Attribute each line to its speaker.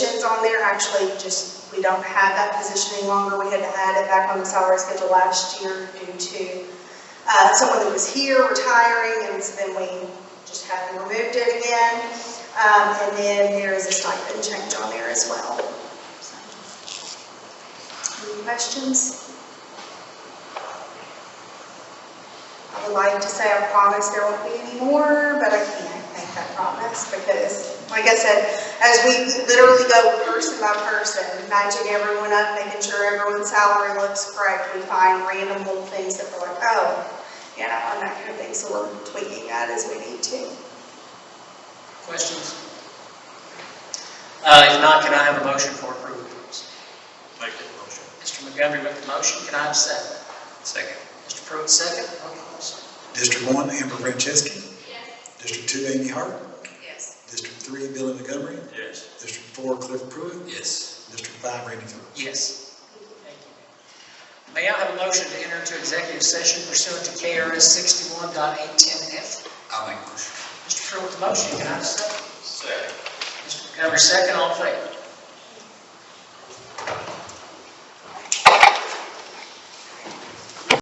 Speaker 1: is on there, actually, just, we don't have that position any longer. We had had it back on the salary schedule last year due to uh, someone that was here retiring, and so then we just haven't removed it again. Um, And then there is a stipend change on there as well. So, Any questions? I would like to say I promise there won't be any more, but I can't make that promise because, like I said, as we literally go person by person, matching everyone up, making sure everyone's salary looks correct, we find random little things that we're like, oh, you know, and that kind of thing, so we're tweaking that as we need to.
Speaker 2: Questions? Uh, If not, can I have a motion for approval, please?
Speaker 3: Make that motion.
Speaker 2: Mr. Montgomery with the motion, can I have a second?
Speaker 3: Second.
Speaker 2: Mr. Pruitt, second. Roll call, sir.
Speaker 4: District one, Amber Franceschi. District two, Amy Hart.
Speaker 1: Yes.
Speaker 4: District three, Billy Montgomery.
Speaker 3: Yes.
Speaker 4: District four, Cliff Pruitt.
Speaker 3: Yes.
Speaker 4: District five, Randy Phillips.
Speaker 2: Yes. Thank you. May I have a motion to enter into executive session pursuant to KRS 61.810F?
Speaker 3: I'll make a motion.
Speaker 2: Mr. Pruitt with the motion, can I have a second?
Speaker 3: Second.
Speaker 2: Mr. Montgomery, second, all in favor?